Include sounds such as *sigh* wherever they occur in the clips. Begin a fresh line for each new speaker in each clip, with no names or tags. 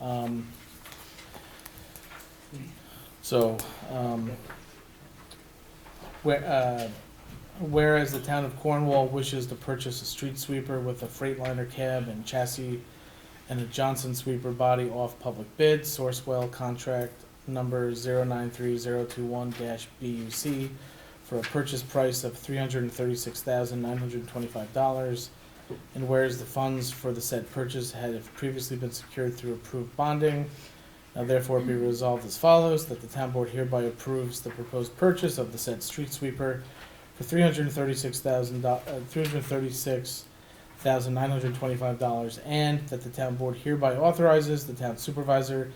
Um, So, um, where, uh, whereas the town of Cornwall wishes to purchase a street sweeper with a Freightliner cab and chassis and a Johnson sweeper body off public bid, Sourcewell contract number zero nine three zero two one dash BUC for a purchase price of three hundred and thirty-six thousand nine hundred and twenty-five dollars. And whereas the funds for the said purchase had previously been secured through approved bonding, now therefore be resolved as follows, that the town board hereby approves the proposed purchase of the said street sweeper for three hundred and thirty-six thousand, uh, three hundred and thirty-six thousand nine hundred and twenty-five dollars, and that the town board hereby authorizes the town supervisor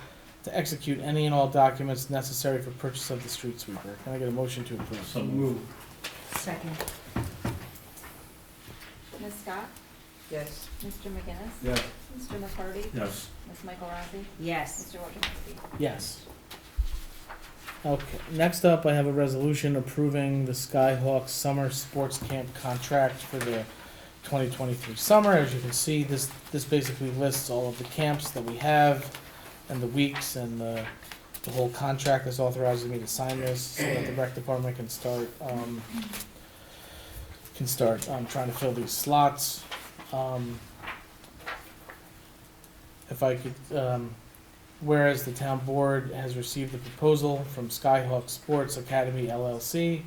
to execute any and all documents necessary for purchase of the street sweeper. Can I get a motion to approve?
So move.
Second.
Ms. Scott?
Yes.
Mr. McGinnis?
Yes.
Mr. McCarty?
Yes.
Ms. Michael Rossi?
Yes.
Mr. Wojciechowski?
Yes. Okay, next up, I have a resolution approving the Skyhawk Summer Sports Camp contract for the twenty twenty-three summer. As you can see, this, this basically lists all of the camps that we have and the weeks and the, the whole contract that's authorizing me to sign this so that the rec department can start, um, can start, um, trying to fill these slots. Um, if I could, um, Whereas the town board has received a proposal from Skyhawk Sports Academy LLC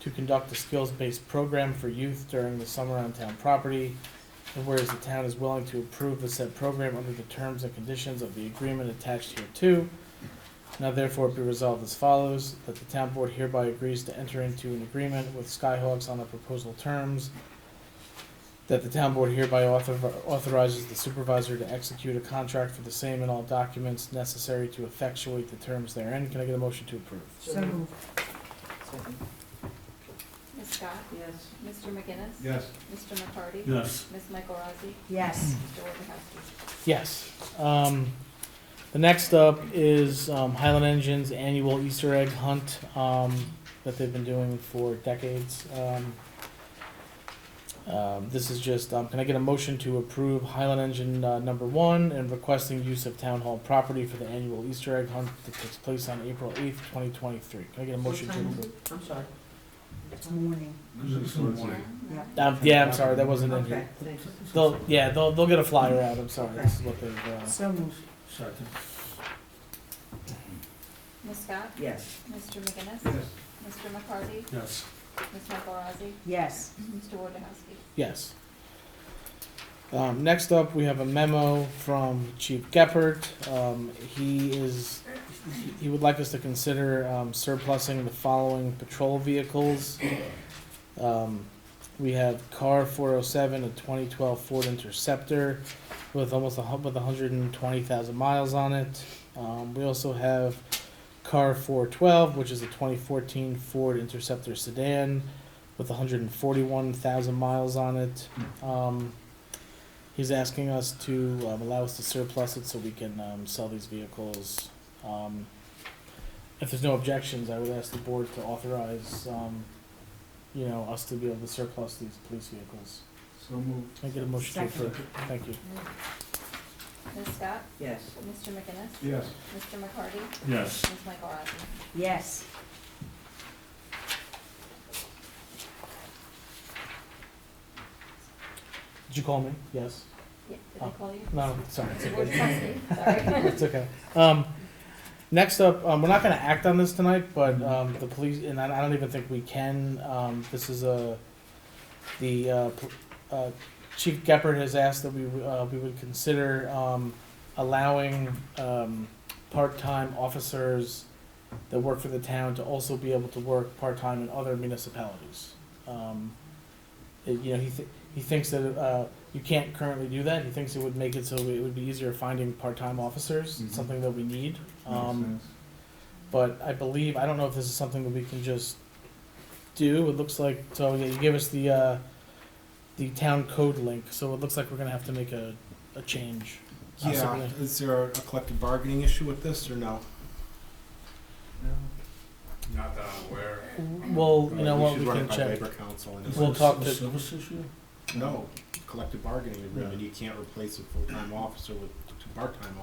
to conduct a skills-based program for youth during the summer on town property. And whereas the town is willing to approve the said program under the terms and conditions of the agreement attached here too. Now therefore be resolved as follows, that the town board hereby agrees to enter into an agreement with Skyhawks on the proposal terms that the town board hereby author- authorizes the supervisor to execute a contract for the same and all documents necessary to effectuate the terms therein. Can I get a motion to approve?
So move.
Ms. Scott?
Yes.
Mr. McGinnis?
Yes.
Mr. McCarty?
Yes.
Ms. Michael Rossi?
Yes.
Mr. Wojciechowski?
Yes. Um, the next up is um, Highland Engine's annual Easter egg hunt um, that they've been doing for decades. Um, um, this is just, um, can I get a motion to approve Highland Engine uh, number one and requesting use of town hall property for the annual Easter egg hunt that takes place on April 8th, 2023? Can I get a motion to
time?
approve?
Mm. I'm sorry. It's morning. Yeah.
Um, yeah, I'm sorry, that wasn't in
Okay,
here.
thanks.
They'll, yeah, they'll, they'll get a flyer out. I'm sorry.
Okay.
This is what they've. Uh,
So move.
Second.
Ms. Scott?
Yes.
Mr. McGinnis?
Yes.
Mr. McCarty?
Yes.
Ms. Michael Rossi?
Yes.
Mr. Wojciechowski?
Yes. Um, next up, we have a memo from Chief Geppert. Um, he is, he would like us to consider, um, surplusing the following patrol vehicles. Um, we have car four oh seven, a twenty twelve Ford Interceptor with almost a hu- with hundred and twenty thousand miles on it. Um, we also have car four twelve, which is a twenty fourteen Ford Interceptor sedan with 141,000 miles on it. Um, he's asking us to um, allow us to surplus it so we can um, sell these vehicles. Um, if there's no objections, I would ask the board to authorize, um, you know, us to be able to surplus these police vehicles.
So move.
Can I get a motion to
Second.
approve? Thank you.
Ms. Scott?
Yes.
Mr. McGinnis?
Yes.
Mr. McCarty?
Yes.
Ms. Michael Rossi?
Yes.
Did you call me? Yes.
Yeah, Did I call you?
Oh, No, sorry. It's
Mr.
okay.
Wojciechowski?
*laughs*
Sorry.
It's okay. Um, next up, um, we're not gonna act on this tonight, but, um, the police, and I, I don't even think we can, um, this is a, the, uh, pl- uh, Chief Geppert has asked that we, uh, we would consider, um, allowing, um, part-time officers that work for the town to also be able to work part-time in other municipalities. Um, it- you know, he, th- he thinks that, uh, you can't currently do that. He thinks it would make it so it would be easier finding part-time officers,
Mhm.
something that we need. Um, but I believe, I don't know if this is something that we can just do. It looks like, so yeah, you gave us the, uh, the town code link, so it looks like we're gonna have to make a, a change.
Yeah,
possibly.
is there a collective bargaining issue with this, or no?
Not that I'm aware.
Well, you know
We
what,
should
we
run it
can
by
check.
Labor Council and
We'll
it's,
talk to-
Service issue?
no, collective bargaining agreement, you can't replace a full-time officer with two part-time